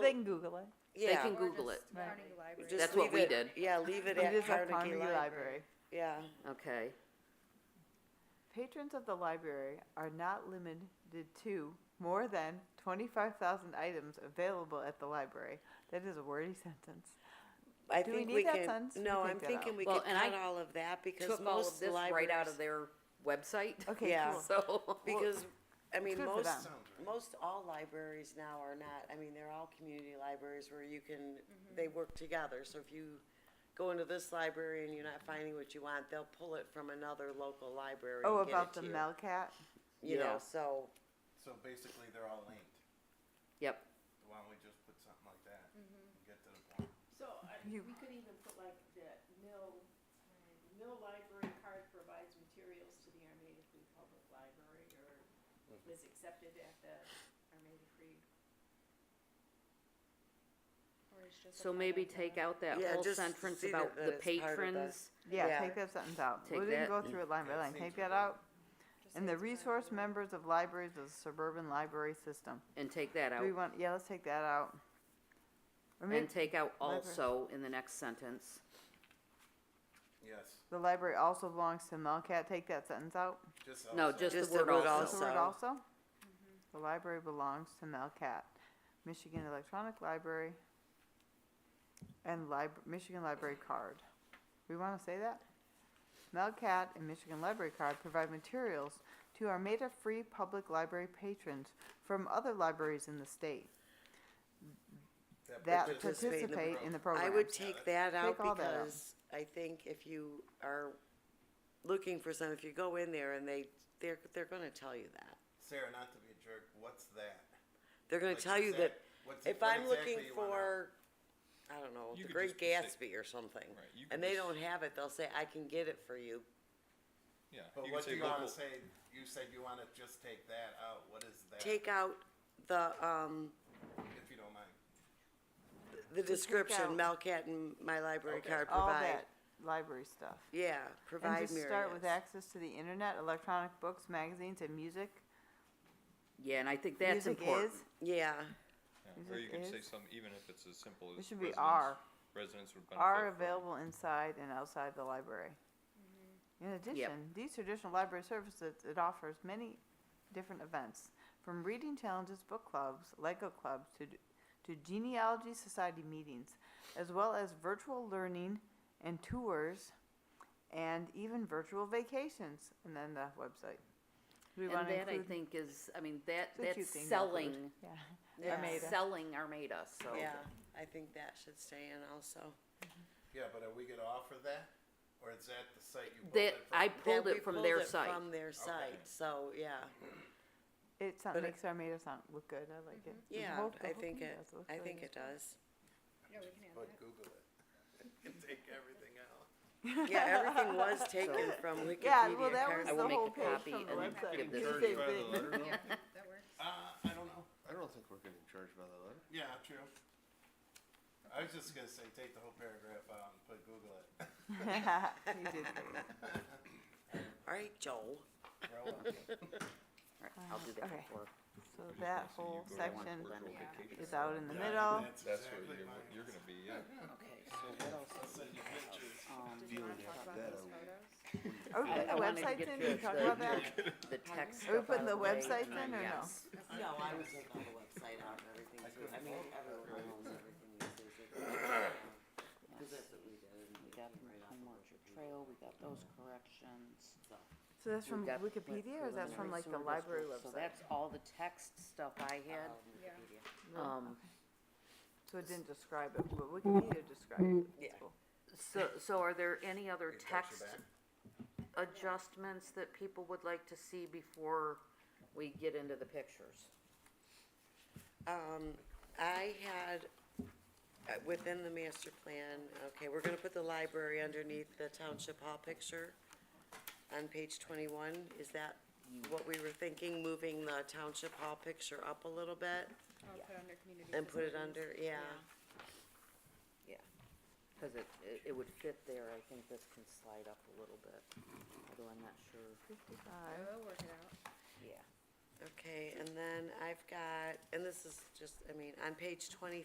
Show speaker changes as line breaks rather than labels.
they can Google it.
They
Yeah.
can
Or
Google it,
just
Right.
Carnegie Library.
Just
That's what
leave
we
it-
did.
Yeah, leave it
It is
at
at
Carnegie Library. Yeah,
okay.
Patrons of the library are not limited to more than twenty-five thousand items available at the library. That is a wordy sentence.
I
Do we
think
need
we
that
can,
sentence? We
no,
take
I'm
that
thinking
out.
we
Well,
could
and I
cut all of that because
Took all of
most
this right out of
libraries.
their website,
Okay,
Yeah.
cool.
so.
Because, I mean,
good for
most,
them.
most all libraries now are not, I mean, they're all community libraries where you can,
Mm-hmm.
they work together. So if you go into this library and you're not finding what you want, they'll pull it from another local library
Oh,
and get
about
it
the
to you.
Melcat?
You
Yeah.
know, so,
So basically, they're all linked.
Yep,
Why don't we just put something like that and get to the point?
So, I, we
You-
could even put like the mill, mill library card provides materials to the Armada Free Public Library or is accepted at the Armada Free.
Or it's just a
so maybe
public
take
library.
out that
Yeah,
whole
just
sentence
see
about
that
the
it's part of the-
patrons.
Yeah,
Yeah.
take that sentence out. We
Take
didn't
that
go through it line by
Yeah,
line.
seems
Take that
redundant.
out.
Just
And
say
the
it's a
resource
library.
members of libraries of the suburban library system.
And take that out,
Do we want, yeah, let's take that out. Or maybe
and take out
Library.
also in the next sentence.
Yes,
the library also belongs to Melcat. Take that sentence out.
just
No,
also-
just the
Just the
word
word
That's
also.
the word
Also.
also? Mm-hmm. The library belongs to Melcat, Michigan Electronic Library, and Lib- Michigan Library Card. We wanna say that? Melcat and Michigan Library Card provide materials to Armada Free Public Library patrons from other libraries in the state that
Participate in the
participate in the
I
program.
would take that out
Take all that out.
because I think if you are looking for some, if you go in there and they, they're, they're gonna tell you that.
Sarah, not to be a jerk, what's that?
They're gonna
Like,
tell you that
exact- what's-
if
what
I'm looking
exactly you want out?
for, I don't know,
You
the
could
Great
just say-
Gatsby or something,
Right, you
and
could
they
just-
don't have it, they'll say, I can get it for you.
Yeah.
But
you
what
can
do
say
you wanna
local-
say, you said you wanna just take that out, what is that,
Take out the, um,
if you don't mind?
the description,
out-
Melcat and my library
Okay.
card
All
provide.
that library stuff.
Yeah,
And
provide
just start with
myriads.
access to the internet, electronic books, magazines, and music.
Yeah, and I think that's
Music
important.
is-
Yeah,
Is
yeah, Or
it
you can say
is?
some, even if it's as simple as.
It should be
residents-
R.
Residents would benefit.
are
from-
available inside and outside the library. In addition, these traditional library services, it offers many different events, from reading challenges, book clubs, Lego clubs, to, to genealogy society meetings, as well as virtual learning and tours, and even virtual vacations, and then the website. Do we
And
wanna
that I
include-
think is, I mean, that,
it's a cute
that's
thing to include.
selling,
Yeah.
Yeah.
that's
Armada.
selling Armada, so.
yeah, I think that should stay in also.
Yeah, but are we gonna offer that, or is that the site you pulled
That,
it from?
I
That
pulled
we
it from their
pulled it
site.
From their site, so, yeah,
It sound-
But it-
makes Armada sound look good, I like it. The
yeah,
whole- the
I
whole
think
thing
it,
does look
I
really
think
good.
it does.
Yeah, we can add
But
that.
Google it, and take everything out.
Yeah, everything was taken from Wikipedia.
Yeah, well, that was
Carnegie.
the
I will make
whole
a
page
copy
from the
and
website.
give
It's
this
the
to
same thing.
Yeah, that works.
Uh, I don't know,
I don't think we're getting charged by the letter.
yeah, true. I was just gonna say, take the whole paragraph out and put Google it.
You did great.
All right, Joel.
Grow up.
Alright, I'll do that
okay.
for,
So
Just wanna
that
say you
whole
go to
section
one virtual vacation.
is out in the
Yeah,
middle.
That's
That's where
exactly
you're,
mine.
you're gonna be, yeah.
okay.
I'll send you pictures.
Um,
Did you wanna talk about
that
those
over.
photos?
Are we
I-
putting
I
the
wanted to
websites
get
in?
your-
Did we talk about that?
The text
Are we
stuff
putting
out
the
of way,
websites
and then,
in or no?
yes.
No, I would take all the website out and everything too. I mean, everyone owns everything these days. Because that's what we did. and
We
it
got
came
the
right off
Home
of
Orchard
Wikipedia.
Trail, we got those corrections.
So that's
We
from
got, like,
Wikipedia or is that from
preliminary
like the
sewer
library
district, So
website? Oh,
that's all the text stuff I had.
Um,
Yeah.
Wikipedia.
Um,
So it didn't describe it, but Wikipedia described it. That's
Yeah.
cool.
so, so are there any other
Hey, touch your
text
back.
adjustments that people would like to see before we get into the pictures?
Um, I had, uh, within the master plan, okay, we're gonna put the library underneath the township hall picture on page twenty-one. Is that what we were thinking, moving the township hall picture up a little bit
I'll put under community.
and put it
facilities.
under, yeah.
Cause it, it, it would fit there, I think this can slide up a little bit, although I'm not sure,
I
Fifty-five.
will work it out.
yeah.
Okay, and then I've got, and this is just, I mean, on page twenty